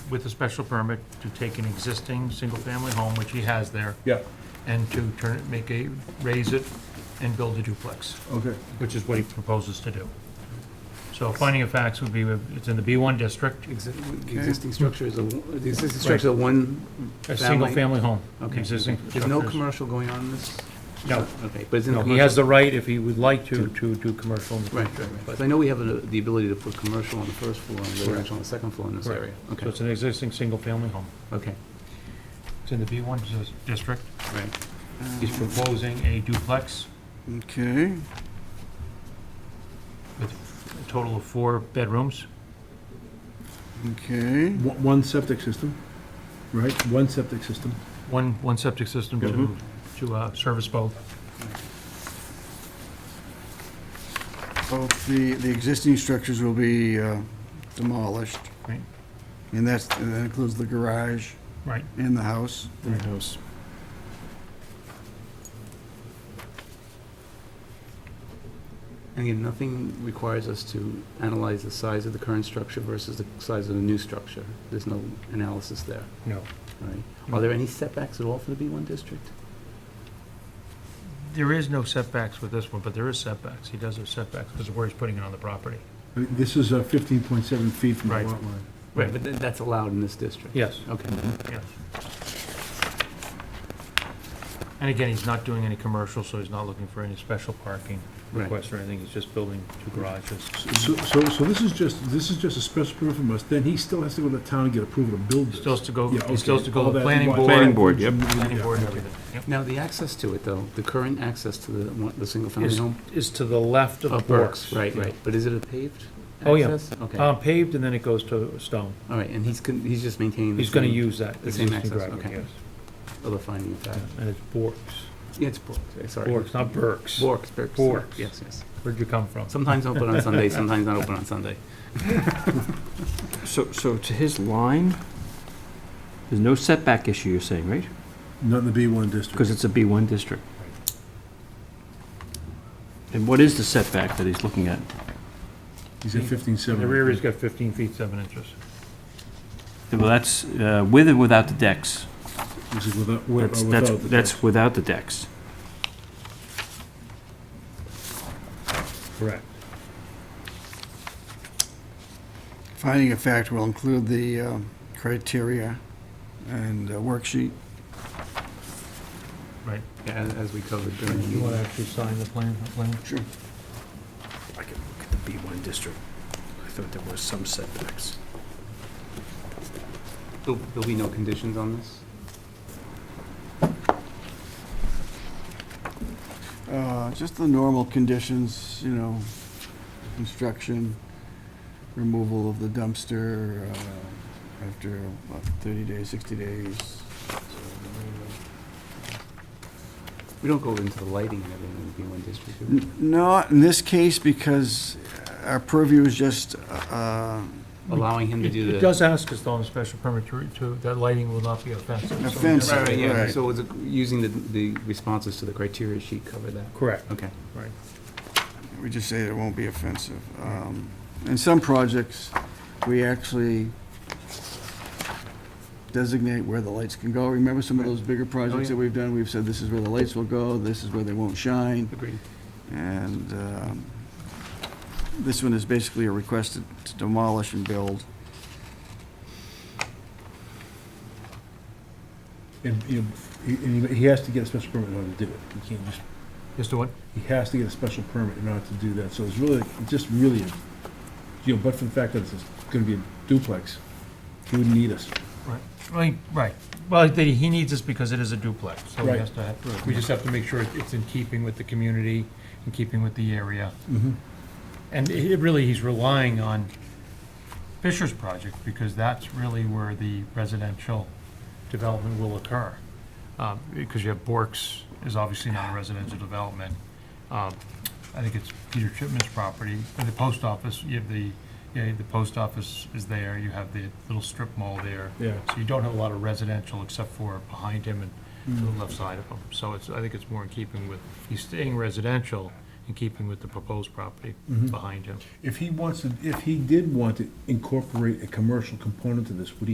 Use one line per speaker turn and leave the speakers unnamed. with a special permit to take an existing single-family home, which he has there,
Yeah,
and to turn it, make a, raise it and build a duplex,
okay.
which is what he proposes to do. So finding of facts would be, it's in the B1 district,
Exi- The existing structure is a, the existing structure is a one,
a
Family.
single-family home.
okay.
Existing
There's no
structures.
commercial going on in this?
No.
Okay, but it's in
No,
the
he has
commercial?
the right, if he would like to, to do commercial in the
Right, right, right. Because I know we have the the ability to put commercial on the first floor and residential on the second floor in this
Correct.
area.
So
Okay,
it's an existing single-family home.
okay,
It's in the B1 dis- district.
right.
He's proposing a duplex
Okay,
with a total of four bedrooms.
okay.
One one septic system, right? One septic system.
One, one septic system to,
Mm-hmm.
to uh, service both.
Both the, the existing structures will be uh, demolished.
Right.
And that's, and that includes the garage
Right.
and the house.
Greenhouse.
And again, nothing requires us to analyze the size of the current structure versus the size of the new structure. There's no analysis there,
No.
right? Are there any setbacks at all for the B1 district?
There is no setbacks with this one, but there is setbacks. He does have setbacks because of where he's putting it on the property.
I mean, This is uh, 15.7 feet from the
Right.
lot line.
Right.
But th- that's allowed in this district?
Yes,
Okay,
yes. And again, he's not doing any commercial, so he's not looking for any special parking
Right.
requests or anything. He's just building two garages.
So, so, so this is just, this is just a special permit from us, then he still has to go to town and get approval to build this?
Still has to go,
Yeah,
he still has
okay.
to go
All
to the
that-
planning board.
Planning board, yep.
Planning
Yeah,
board and
okay.
everything. Yep.
now the access to it, though, the current access to the, one- the single-family
Is,
home?
is to the left of
Of
Burke's.
Burke's, right, right. But is it a paved
Oh, yeah.
access? Okay, all
Uh, paved and then it goes to stone.
right, and he's, con- he's just maintaining the
He's gonna
same
use that.
the same
existing
access,
driveway,
okay. other finding of
yes.
fact.
And it's Bork's.
Yeah, it's Borks, sorry.
Bork's, not Burke's.
Borks, Borks.
Borks.
Yes, yes.
Where'd you come from?
Sometimes open on Sunday, sometimes not open on Sunday.
So, so to his line, there's no setback issue, you're saying, right?
Not in the B1 district.
Because it's a B1 district. And what is the setback that he's looking at?
He's at 15.7.
The rear is got 15 feet, 7 inches.
Well, that's uh, with or without the decks?
This is without, with-
That's,
or
that's,
without the
that's without the decks.
Correct.
Finding of fact will include the um, criteria and uh, worksheet.
Right.
Yeah, as, as we covered during the
You want to
meeting.
actually sign the plan, the plan?
I can look at the B1 district. I thought there was some setbacks.
There'll, there'll be no conditions on this?
Uh, Just the normal conditions, you know, construction, removal of the dumpster uh, after about 30 days, 60 days. so,
We don't go into the lighting and everything in the B1 district, do we?
N- Not in this case, because our purview is just, uh,
allowing him to
It
do
it
the.
does ask us though on the special permit to- to, that lighting will not be offensive. so-
Offensive.
Right, right, yeah,
Right.
so was it using the, the responses to the criteria sheet cover that?
Correct,
Okay.
right.
we just say it won't be offensive. Um, In some projects, we actually designate where the lights can go. Remember some of those bigger projects that we've done? We've said this is where the lights will go, this is where they won't shine.
Agreed.
And um, this one is basically a request to- to demolish and build.
And, you know, he- and he- he has to get a special permit in order to do it. He can't just,
Just to what?
he has to get a special permit in order to do that, so it's really, it's just really, you know, but for the fact that it's gonna be a duplex, he wouldn't need us.
Right, right. Well, that he needs this because it is a duplex, so he
Right.
has to, have- we just have to make sure it's in keeping with the community, in keeping with the area. And it really, he's relying on Fisher's project, because that's really where the residential development will occur. Um, Because you have Bork's is obviously not a residential development. Um, I think it's Peter Chipman's property, and the post office, you have the, you know, the post office is there, you have the little strip mall there.
Yeah.
So you don't have a lot of residential except for behind him and to the left side of him. So it's, I think it's more in keeping with, he's staying residential in keeping with the proposed property behind him.
If he wants to, if he did want to incorporate a commercial component to this, would he